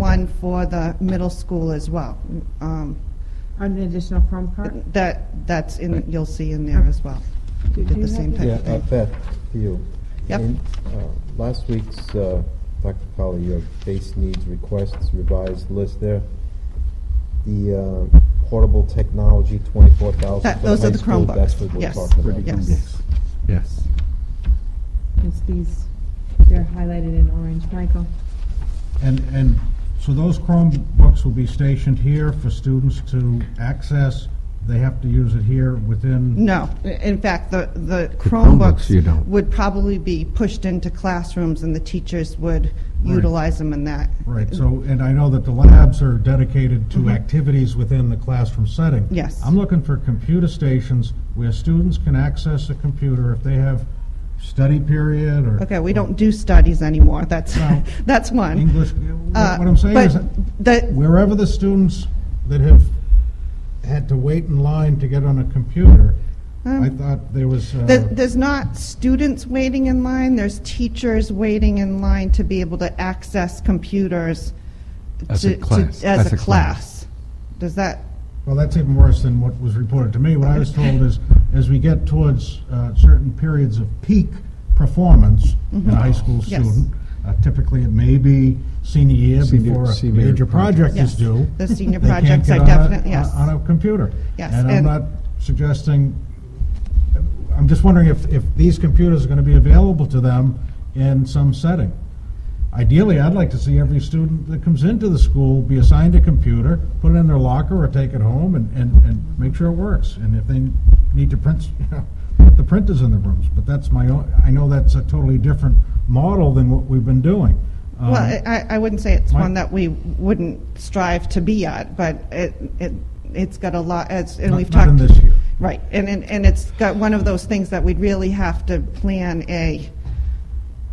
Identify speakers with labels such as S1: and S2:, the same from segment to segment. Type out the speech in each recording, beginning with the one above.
S1: one for the middle school as well. Um,
S2: An additional Chrome cart?
S1: That, that's in, you'll see in there as well. We
S2: Do- do
S1: did
S2: you
S1: the same type
S2: have the-
S3: Yeah,
S1: of
S3: uh,
S1: thing.
S3: Beth, to you.
S1: Yep.
S3: In, uh, Last week's, uh, Dr. Colley, your base needs requests revised list there, the uh, portable technology, 24,000
S1: That-
S3: for the
S1: those are
S3: high
S1: the
S3: school,
S1: Chromebooks.
S3: that's what we're
S1: Yes.
S3: talking about.
S1: Yes.
S4: Yes.
S2: It's these, they're highlighted in orange. Michael?
S5: And, and so those Chromebooks will be stationed here for students to access. They have to use it here within.
S1: No, in fact, the, the
S4: Chromebooks you
S1: Chromebooks
S4: don't.
S1: would probably be pushed into classrooms and the teachers would utilize them in that.
S5: Right, so, and I know that the labs are dedicated to activities within the classroom setting.
S1: Mm-hmm. Yes.
S5: I'm looking for computer stations where students can access a computer if they have study period or.
S1: Okay, we don't do studies anymore, that's,
S5: No.
S1: that's one.
S5: English, what
S1: Uh,
S5: what I'm saying
S1: but
S5: is.
S1: the-
S5: wherever the students that have had to wait in line to get on a computer,
S1: um,
S5: I thought there was, uh,
S1: the- there's not students waiting in line, there's teachers waiting in line to be able to access computers.
S4: As
S1: to-
S4: a
S1: to-
S4: class,
S1: As a class. Does that,
S5: well, that's even worse than what was reported to me. What I was told is, as we get towards uh, certain periods of peak performance in a high school
S1: Mm-hmm. Yes.
S5: student, uh, typically it may be senior year
S4: Senior-
S5: before a
S4: senior
S5: major project
S1: Yes.
S5: is due.
S1: The senior
S5: they can't
S1: projects
S5: get
S1: are
S5: on a-
S1: definite- yes.
S5: On a computer.
S1: Yes,
S5: And I'm
S1: and-
S5: not suggesting I'm just wondering if, if these computers are going to be available to them in some setting. Ideally, I'd like to see every student that comes into the school be assigned a computer, put it in their locker or take it home and, and, and make sure it works. And if they need to print, you know, put the printers in the rooms. But that's my own, I know that's a totally different model than what we've been doing. Um,
S1: well, I, I- I wouldn't say it's
S5: my-
S1: one that we wouldn't strive to be at, but it, it, it's got a lot, it's, and
S5: not-
S1: we've
S5: Not
S1: talked.
S5: in this year.
S1: Right, and, and, and it's got one of those things that we'd really have to plan a,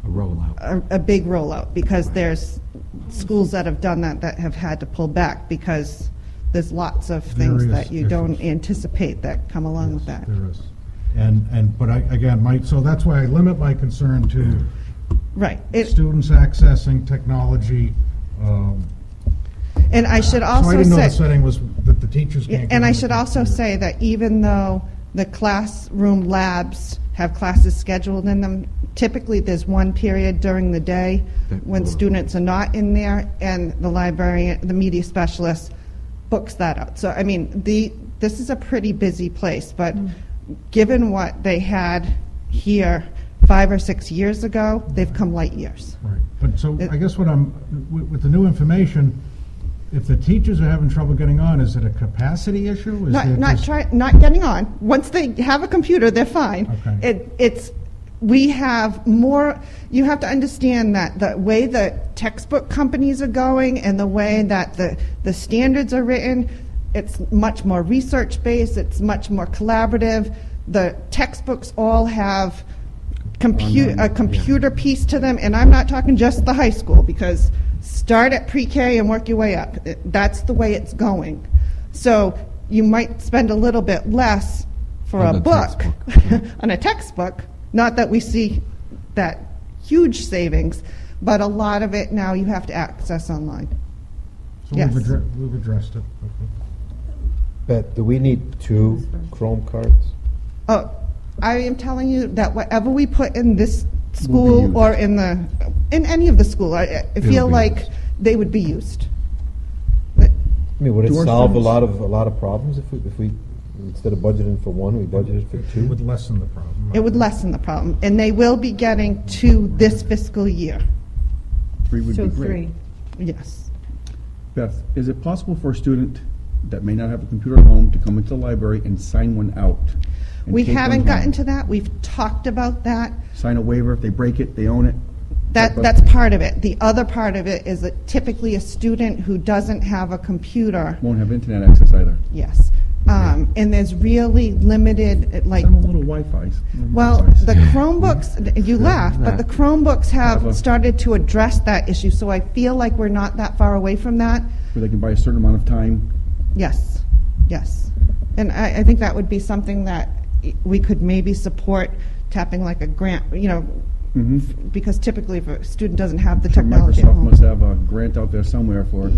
S4: A rollout.
S1: a, a big rollout, because there's schools that have done that, that have had to pull back, because there's lots of things
S5: Various
S1: that you don't
S5: issues.
S1: anticipate that come along with that.
S5: There is. And, and, but I, again, my, so that's why I limit my concern to
S1: Right, It-
S5: students accessing technology. um,
S1: and I should
S5: So I
S1: also
S5: didn't know the
S1: say,
S5: setting was that the teachers can't. get
S1: and
S5: on
S1: I
S5: the
S1: should also
S5: computer.
S1: say that even though the classroom labs have classes scheduled in them, typically there's one period during the day
S4: That
S1: when
S4: will-
S1: students are not in there, and the librarian, the media specialist books that out. So, I mean, the, this is a pretty busy place, but given what they had here five or six years ago, they've come light years.
S5: Right, but so
S1: It-
S5: I guess what I'm, with, with the new information, if the teachers are having trouble getting on, is it a capacity issue? Is
S1: Not,
S5: it
S1: not
S5: just-
S1: try, not getting on. Once they have a computer, they're fine.
S5: Okay.
S1: It, it's, we have more, you have to understand that the way the textbook companies are going and the way that the, the standards are written, it's much more research-based, it's much more collaborative. The textbooks all have compu- a computer piece to them, and I'm not talking just the high school, because start at pre-K and work your way up. It- That's the way it's going. So you might spend a little bit less for
S4: On
S1: a
S4: the
S1: book,
S4: textbook.
S1: on a textbook, not that we see that huge savings, but a lot of it now you have to access online.
S5: So
S1: yes.
S5: we've addressed, we've addressed it. Okay.
S3: Beth, do we need two Chrome cards?
S1: Oh, I am telling you that whatever we put in this school or in the, in any of the school, I I feel
S4: be
S1: like
S4: used.
S1: they would be used. But-
S3: I mean, would it
S6: Door
S3: solve a
S6: frames?
S3: lot of, a lot of problems if we, if we, instead of budgeting for one, we budgeted for
S5: It would
S3: two?
S5: lessen the problem.
S1: It would lessen the problem, and they will be getting to this fiscal year,
S6: Three would
S2: So
S6: be great.
S2: three.
S1: yes.
S6: Beth, is it possible for a student that may not have a computer at home to come into the library and sign one out? and
S1: We
S6: take one
S1: haven't
S6: home?
S1: gotten to that, we've talked about that,
S6: Sign a waiver, if they break it, they own it?
S1: that,
S6: But-
S1: that's part of it. The other part of it is that typically a student who doesn't have a computer,
S6: Won't have internet access either.
S1: yes, um, and there's really limited, uh, like,
S6: Send them a little Wi-Fi.
S1: well, the Chromebooks, you laugh, but the Chromebooks
S6: Have a-
S1: have started to address that issue, so I feel like we're not that far away from that.
S6: Where they can buy a certain amount of time.
S1: Yes, yes. And I, I think that would be something that we could maybe support tapping like a grant, you know,
S6: Mhm.
S1: because typically if a student doesn't have the
S6: Sure,
S1: Mm-hmm. technology at
S6: Microsoft
S1: home.
S6: must have a grant out there somewhere for